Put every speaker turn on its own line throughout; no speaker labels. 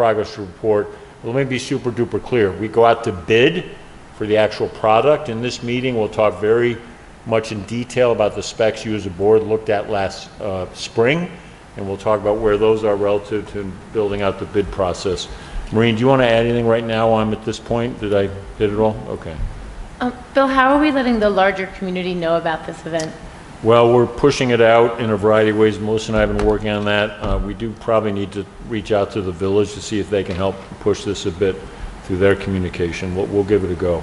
progress report. Let me be super duper clear. We go out to bid for the actual product. In this meeting, we'll talk very much in detail about the specs you as a board looked at last uh, spring, and we'll talk about where those are relative to building out the bid process. Maureen, do you want to add anything right now? I'm at this point. Did I hit it all? Okay.
Um, Bill, how are we letting the larger community know about this event?
Well, we're pushing it out in a variety of ways. Melissa and I have been working on that. Uh, We do probably need to reach out to the village to see if they can help push this a bit through their communication. We'll, we'll give it a go.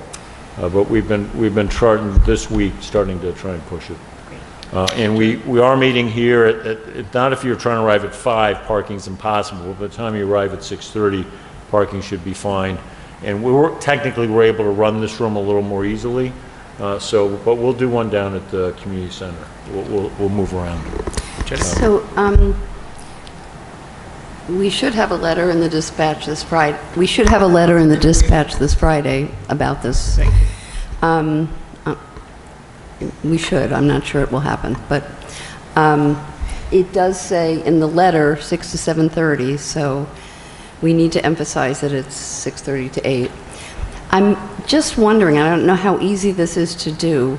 Uh, But we've been, we've been charting this week, starting to try and push it. Uh, And we, we are meeting here at- at, at- not if you're trying to arrive at five, parking's impossible. By the time you arrive at 6:30, parking should be fine. And we were, technically, we're able to run this room a little more easily, Uh, so, but we'll do one down at the community center. We'll, we'll, we'll move around.
So, um, we should have a letter in the dispatch this Friday, we should have a letter in the dispatch this Friday about this. Um, uh, We should, I'm not sure it will happen, but um, it does say in the letter, 6 to 7:30, so we need to emphasize that it's 6:30 to 8. I'm just wondering, I don't know how easy this is to do,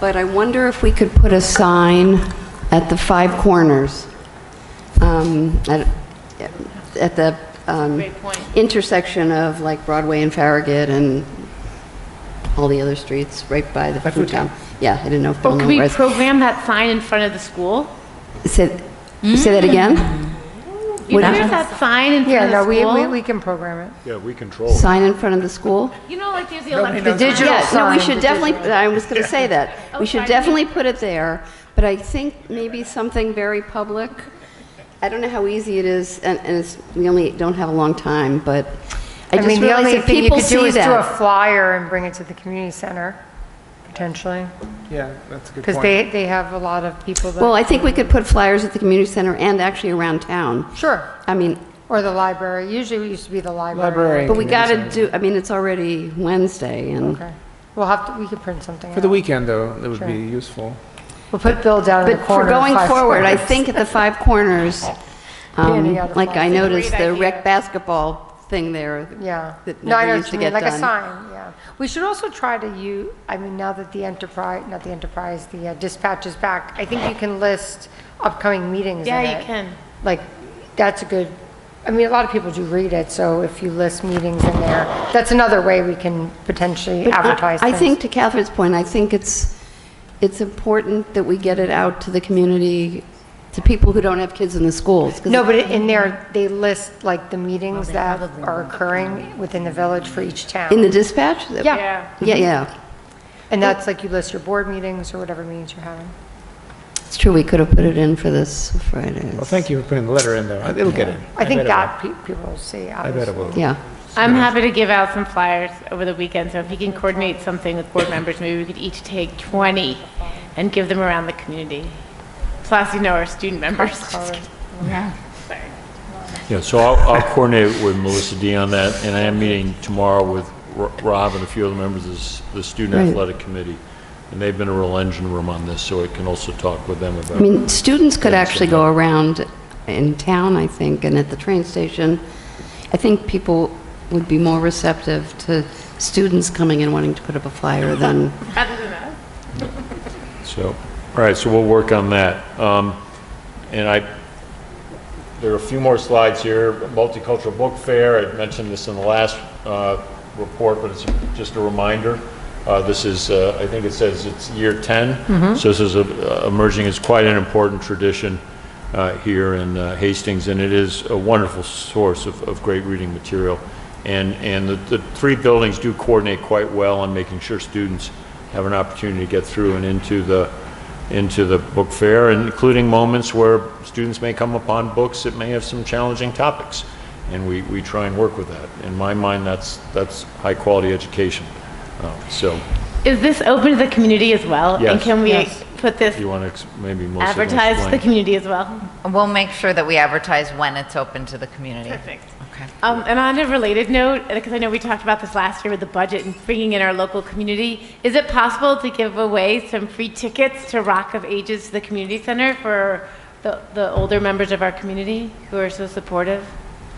but I wonder if we could put a sign at the five corners, um, at at the um,
Great point.
intersection of like Broadway and Farragut and all the other streets, right by the food town. Yeah, I didn't know if Bill
Or could
knew
Oh, we
where.
program that sign in front of the school?
Say say
Hmm?
that again?
You know,
Would-
there's that sign in
Yeah,
front
no,
of the
we, we,
school?
we can program it.
Yeah, we control.
Sign in front of the school?
You know, like there's the electric.
knows
sign.
about Digital
Yeah, no, we
sign,
should
the
definitely, I was going to say that. We
Oh,
should
pardon me.
definitely put it there, but I think maybe something very public. I don't know how easy it is, and, and it's, we only don't have a long time, but I
I
just
mean, the
realized
only
if
thing you
people
could do
see
is do a
that.
flyer and bring it to the community center, potentially,
Yeah, that's a good
because
point.
they, they have a lot of people that.
Well, I think we could put flyers at the community center and actually around town.
Sure,
I mean,
or the library, usually it used to be the library.
Library.
but we
Community
got to
center.
do, I mean, it's already Wednesday, and,
Okay, we'll have to, we could print something
For the
out.
weekend, though, that would
Sure.
be useful.
We'll put Bill down in
but
the
for
corner.
going
five
forward, I
corners.
think at the five corners, um,
Standing out of
like I
line.
noticed
Great
the
idea.
rec basketball thing there.
Yeah.
That
No, I know
never
what
used to
you mean,
get done.
like a sign, yeah. We should also try to you, I mean, now that the enterprise, not the enterprise, the uh, dispatch is back, I think you can list upcoming meetings in
Yeah, you
it.
can.
Like, that's a good, I mean, a lot of people do read it, so if you list meetings in there, that's another way we can potentially
But I-
advertise
I
things.
think, to Catherine's point, I think it's, it's important that we get it out to the community, to people who don't have kids in the schools. 'cause
No, but in there, they list like the meetings that are occurring within the village for each
In
town.
the dispatch?
Yeah,
Yeah, yeah.
and that's like you list your board meetings or whatever meetings you're having.
It's true, we could have put it in for this Friday.
Well, thank you for putting the letter in, though. Uh, It'll get in.
I think
bet it
that pe- people will see,
will. I
obviously.
bet it will.
Yeah.
I'm happy to give out some flyers over the weekend, so if you can coordinate something with board members, maybe we could each take 20 and give them around the community. Plus, you know, our student members.
Yeah, so I'll, I'll coordinate with Melissa D on that, and I am meeting tomorrow with Ro- Rob and a few other members of s- the Student
Right.
Athletic Committee, and they've been a real engine room on this, so I can also talk with them
I
about.
mean, students could actually go around in town, I think, and at the train station. I think people would be more receptive to students coming and wanting to put up a flyer than,
So, all right, so we'll work on that. Um, And I, there are a few more slides here. Multicultural Book Fair, I mentioned this in the last uh, report, but it's just a reminder. Uh, This is, uh, I think it says it's year 10. So this is a- emerging, it's quite an important tradition uh, here in uh, Hastings, and it is a wonderful source of of great reading material. And, and the the three buildings do coordinate quite well on making sure students have an opportunity to get through and into the, into the book fair, and including moments where students may come upon books that may have some challenging topics. And we, we try and work with that. In my mind, that's, that's high-quality education. Uh, So
Is this open to the community as well? And
Yes.
can we put this,
you want to, maybe Melissa can
advertise to the
explain.
community as well?
We'll make sure that we advertise when it's open to the community.
Perfect.
Okay.
Um, and on a related note, because I know we talked about this last year with the budget and bringing in our local community, is it possible to give away some free tickets to Rock of Ages to the community center for the, the older members of our community who are so supportive?